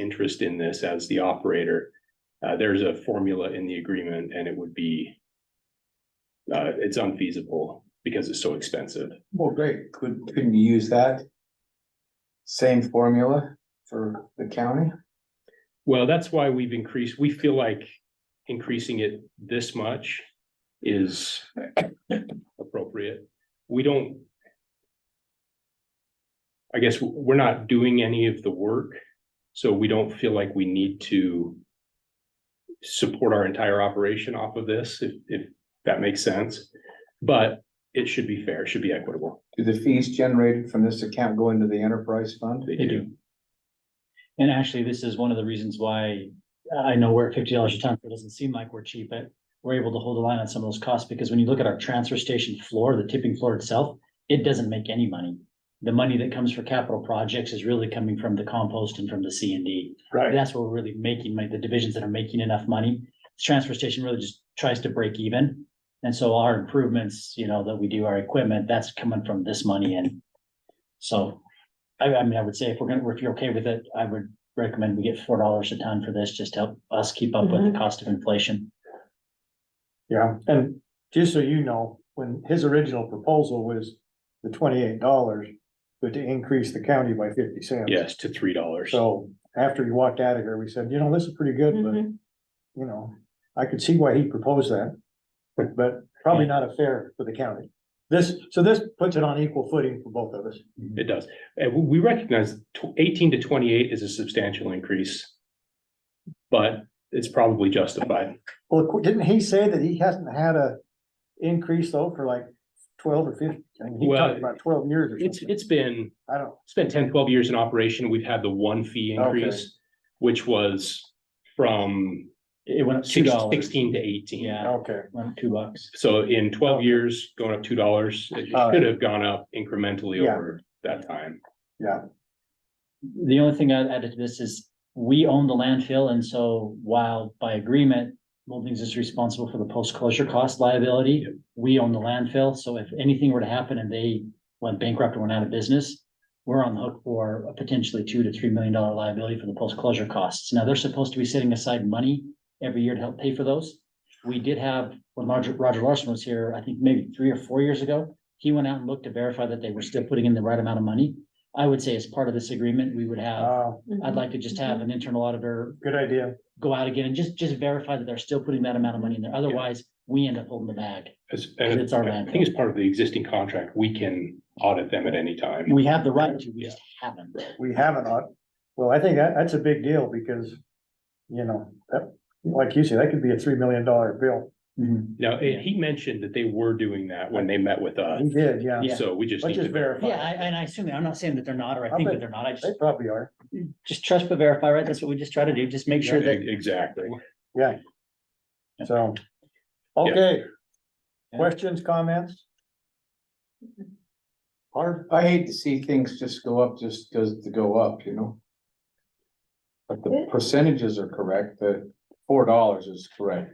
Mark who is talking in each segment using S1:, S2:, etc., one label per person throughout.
S1: interest in this as the operator. Uh, there's a formula in the agreement and it would be. Uh, it's unfeasible because it's so expensive.
S2: Well, great, could, couldn't you use that? Same formula for the county?
S1: Well, that's why we've increased, we feel like increasing it this much is appropriate. We don't. I guess w- we're not doing any of the work, so we don't feel like we need to support our entire operation off of this, if, if that makes sense. But it should be fair, it should be equitable.
S2: Do the fees generated from this account go into the enterprise fund?
S1: They
S3: They do. And actually, this is one of the reasons why I know we're at fifty dollars a ton, it doesn't seem like we're cheap, but we're able to hold the line on some of those costs, because when you look at our transfer station floor, the tipping floor itself, it doesn't make any money. The money that comes for capital projects is really coming from the compost and from the C and D.
S1: Right.
S3: That's where we're really making, like, the divisions that are making enough money. The Transfer station really just tries to break even. And so our improvements, you know, that we do our equipment, that's coming from this money and so I, I mean, I would say if we're gonna, if you're okay with it, I would recommend we get four dollars a ton for this, just to help us keep up with the cost of inflation.
S4: Yeah, and just so you know, when his original proposal was the twenty-eight dollars, but to increase the county by fifty cents.
S1: Yes, to three dollars.
S4: So after he walked out of here, we said, you know, this is pretty good, but,
S5: Mhm.
S4: you know, I could see why he proposed that. But probably not a fair for the county. This, so this puts it on equal footing for both of us.
S1: It does. And we we recognize tw- eighteen to twenty-eight is a substantial increase. But it's probably justified.
S4: Well, qu- didn't he say that he hasn't had a increase though for like twelve or fifteen? I mean, he
S1: Well,
S4: talked about twelve years or
S1: It's,
S4: something.
S1: it's been,
S4: I don't,
S1: it's been 10, 12 years in operation. We've had the one fee
S4: Okay.
S1: increase, which was from
S3: It went up two
S1: six-
S3: dollars,
S1: sixteen to eighteen.
S3: Yeah.
S4: okay.
S3: went up two bucks.
S1: So in twelve years, going up two dollars, it
S3: Uh,
S4: All right.
S1: should have gone up incrementally
S4: Yeah.
S1: over that time.
S3: The only thing I'd add to this is we own the landfill and so while by agreement, Moldings is responsible for the post-closure cost liability.
S1: Yep.
S3: We own the landfill, so if anything were to happen and they went bankrupt or went out of business, we're on the hook for a potentially two to three million dollar liability for the post-closure costs. Now, they're supposed to be setting aside money every year to help pay for those. We did have, when Roger, Roger Larson was here, I think maybe three or four years ago, he went out and looked to verify that they were still putting in the right amount of money. I would say as part of this agreement, we would have,
S4: Uh,
S3: I'd like to just have an internal auditor
S4: good idea.
S3: go out again and just, just verify that they're still putting that amount of money in there. Otherwise, we end up holding the bag.
S1: As- and
S3: It's our
S1: I
S3: landfill.
S1: think it's part of the existing contract. We can audit them at any time.
S3: We have the right to, we just haven't.
S4: we haven't, uh, well, I think that, that's a big deal because, you know, that, like you said, that could be a three million dollar bill.
S3: Mhm.
S1: Now, eh, he mentioned that they were doing that when they met with us.
S4: He did, yeah.
S3: Yeah.
S1: So we just need
S4: Let's
S1: to
S4: just verify.
S3: Yeah, I, and I assume, I'm not saying that they're not, or I
S4: I
S3: think that
S4: bet-
S3: they're not. I just,
S4: They probably are.
S3: just trust but verify, right? That's what we just try to do. Just make sure that
S1: E- Exactly.
S4: So, okay. Questions, comments?
S2: Or, I hate to see things just go up just because to go up, you know? But the percentages are correct, the four dollars is correct.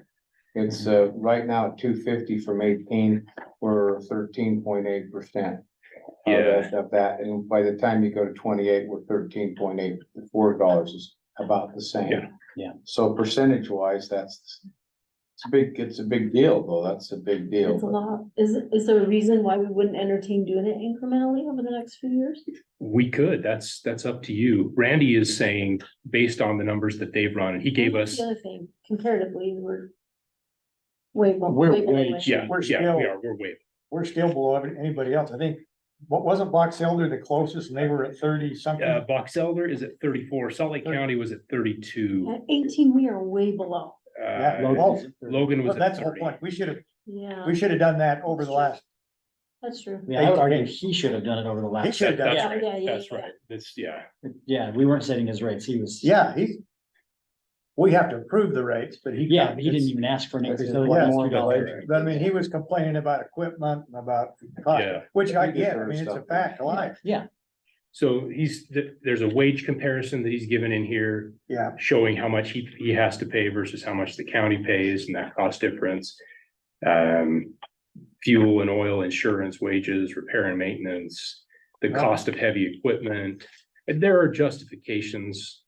S2: It's, uh, right now, two fifty from eighteen, we're thirteen point eight percent.
S1: Uh,
S2: Of that, and by the time you go to twenty-eight, we're thirteen point eight, the four dollars is about the
S1: Yeah.
S2: same.
S3: Yeah.
S2: So percentage wise, that's, it's a big, it's a big deal, though, that's a big deal.
S5: It's a lot. Is, is there a reason why we wouldn't entertain doing it incrementally over the next few years?
S1: We could, that's, that's up to you. Randy is saying, based on the numbers that they've run, and he gave
S5: That's
S1: us,
S5: The other thing, comparatively, we're way. more-
S4: We're
S5: way
S4: way
S5: below.
S1: yeah,
S4: We're
S1: yeah,
S4: still-
S1: we are, we're way.
S4: We're still below every- anybody else. I think, what wasn't Box Elder the closest and they were at thirty
S1: Uh,
S4: something?
S1: Box Elder is at thirty-four, Salt Lake County was at thirty-two.
S5: At eighteen, we are way below.
S1: uh,
S4: Logan.
S1: Logan was at
S4: Oh, That's the whole
S1: thirty.
S4: point. We should have,
S5: Yeah,
S4: we should have done that over the last,
S5: that's true.
S3: Yeah, I would argue he should have done it over the
S4: he
S3: last.
S4: should have
S1: That-
S4: done
S1: That's
S4: that.
S5: Yeah, yeah,
S1: right,
S5: yeah,
S1: that's
S5: yeah.
S1: right, that's, yeah,
S3: Yeah, we weren't setting his rates. He was.
S4: Yeah, he. We have to approve the rates, but he.
S3: Yeah, but he didn't even ask for an increase. other
S4: Yeah.
S3: than $2.
S4: But I mean, he was complaining about equipment and about cost,
S1: yeah.
S4: which I
S2: He
S4: get, I
S2: deserves
S4: mean, it's a
S2: stuff.
S4: fact, of life,
S3: Yeah,
S1: So he's, th- there's a wage comparison that he's given in here,
S4: yeah.
S1: showing how much he, he has to pay versus how much the county pays and that cost difference. Um, fuel and oil, insurance, wages, repair and maintenance, the cost of heavy equipment. And there are justifications